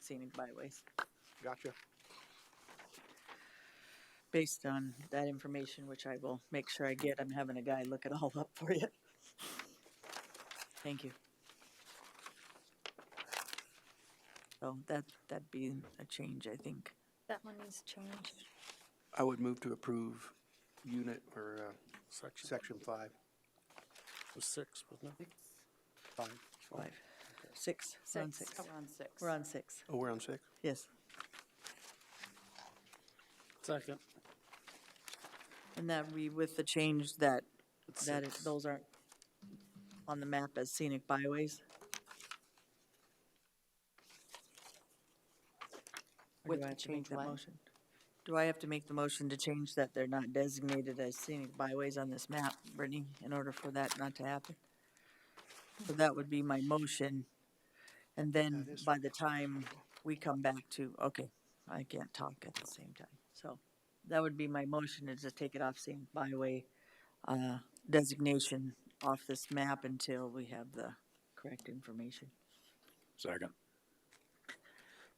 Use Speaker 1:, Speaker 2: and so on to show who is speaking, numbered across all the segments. Speaker 1: scenic byways.
Speaker 2: Gotcha.
Speaker 1: Based on that information, which I will make sure I get, I'm having a guy look it all up for you. Thank you. So that, that'd be a change, I think.
Speaker 3: That one needs to change.
Speaker 2: I would move to approve unit or, uh,
Speaker 4: Section
Speaker 2: section five,
Speaker 4: was six, wasn't it?
Speaker 2: five.
Speaker 1: Five, six, we're on six.
Speaker 3: Six.
Speaker 5: We're on six.
Speaker 1: We're on six,
Speaker 2: Oh, we're on six?
Speaker 1: yes.
Speaker 4: Second.
Speaker 1: And that we, with the change that,
Speaker 4: It's
Speaker 1: that it-
Speaker 4: six.
Speaker 1: those aren't on the map as scenic byways? Or do
Speaker 5: With
Speaker 1: I
Speaker 5: the
Speaker 1: have to make
Speaker 5: change
Speaker 1: that
Speaker 5: what?
Speaker 1: motion? Do I have to make the motion to change that they're not designated as scenic byways on this map, Brittany, in order for that not to happen? So that would be my motion. And then by the time we come back to, okay, I can't talk at the same time. So that would be my motion is to take it off scenic byway uh, designation off this map until we have the correct information.
Speaker 6: Second.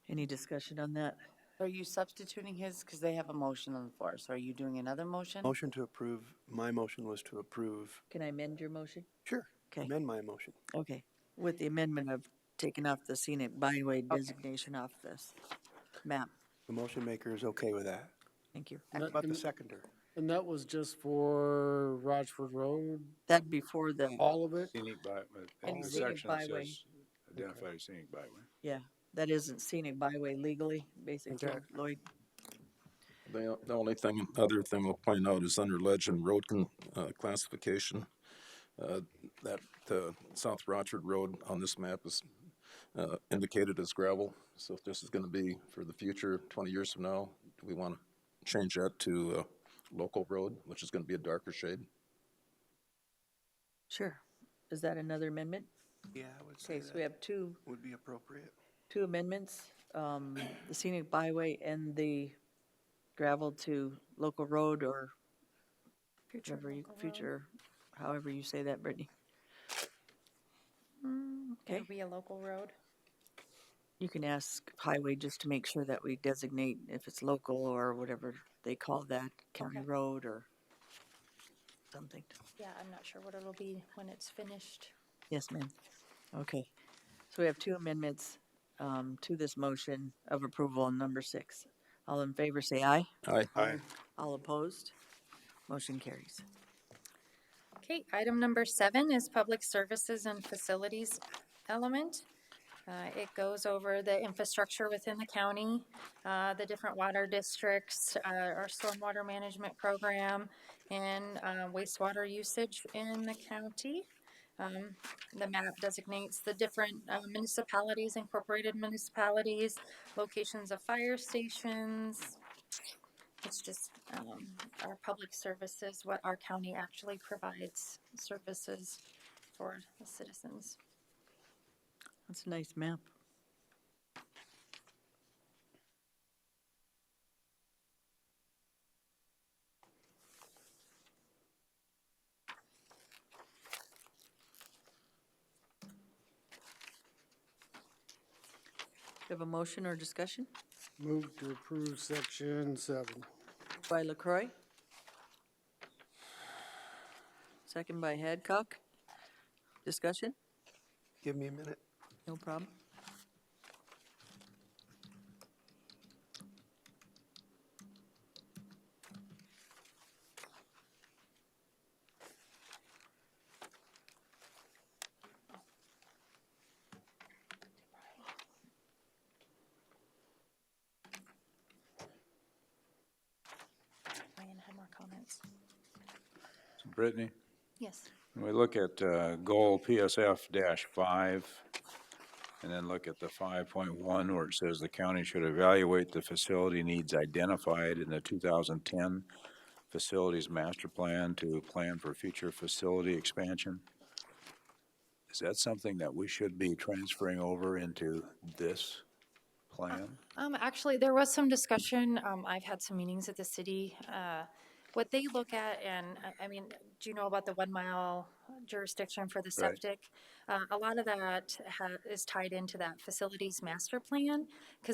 Speaker 1: Any discussion on that?
Speaker 5: Are you substituting his, because they have a motion on the floor, so are you doing another motion?
Speaker 2: Motion to approve, my motion was to approve,
Speaker 1: Can I amend your motion?
Speaker 2: sure,
Speaker 1: Okay.
Speaker 2: amend my motion.
Speaker 1: Okay, with the amendment of taking off the scenic byway designation off this map.
Speaker 2: The motion maker is okay with that.
Speaker 1: Thank you.
Speaker 4: And that-
Speaker 2: About the
Speaker 4: and-
Speaker 2: seconder,
Speaker 4: And that was just for Rochford Road,
Speaker 1: That'd be for the,
Speaker 4: all of it?
Speaker 6: Scenic by, uh,
Speaker 1: And
Speaker 6: the
Speaker 1: scenic
Speaker 6: section that
Speaker 1: byway.
Speaker 6: says identify scenic byway.
Speaker 1: yeah, that isn't scenic byway legally, basically,
Speaker 4: Okay.
Speaker 1: Lloyd.
Speaker 6: The, the only thing, other thing I'll point out is under legend road con, uh, classification. Uh, that, uh, South Rochard Road on this map is, uh, indicated as gravel. So if this is gonna be for the future, twenty years from now, do we wanna change that to, uh, local road, which is gonna be a darker shade?
Speaker 1: Sure. Is that another amendment?
Speaker 2: yeah, I would say
Speaker 1: Okay, so we
Speaker 2: that
Speaker 1: have two,
Speaker 2: would be appropriate.
Speaker 1: two amendments, um, the scenic byway and the gravel to local road or
Speaker 3: Future
Speaker 1: whatever you,
Speaker 3: local road.
Speaker 1: future, however you say that, Brittany.
Speaker 3: It'll Mm,
Speaker 1: Okay.
Speaker 3: be a local road.
Speaker 1: You can ask highway just to make sure that we designate if it's local or whatever they call that, county
Speaker 3: Okay.
Speaker 1: road or something.
Speaker 3: Yeah, I'm not sure what it'll be when it's finished.
Speaker 1: Yes, ma'am. Okay. So we have two amendments um, to this motion of approval on number six. All in favor, say aye.
Speaker 6: Aye.
Speaker 2: Aye.
Speaker 1: All opposed? Motion carries.
Speaker 3: Okay, item number seven is public services and facilities element. Uh, It goes over the infrastructure within the county, uh, the different water districts, uh, our stormwater management program, and uh, wastewater usage in the county. Um, The map designates the different uh, municipalities, incorporated municipalities, locations of fire stations, it's just um, our public services, what our county actually provides services for the citizens.
Speaker 1: That's a nice map. Do you have a motion or discussion?
Speaker 4: Move to approve section seven.
Speaker 1: By Lacroix. Second by Hadcock. Discussion?
Speaker 2: Give me a minute.
Speaker 1: No problem.
Speaker 3: Ryan had more comments.
Speaker 6: Brittany?
Speaker 3: Yes.
Speaker 6: When we look at uh, goal PSF dash five, and then look at the five point one where it says the county should evaluate the facility needs identified in the two thousand ten facilities master plan to plan for future facility expansion. Is that something that we should be transferring over into this plan?
Speaker 3: Um, actually, there was some discussion, um, I've had some meetings at the city, uh, what they look at, and, uh, I, I mean, do you know about the one mile jurisdiction for the
Speaker 6: Right.
Speaker 3: septic? Uh, a lot of that ha- is tied into that facilities master plan, because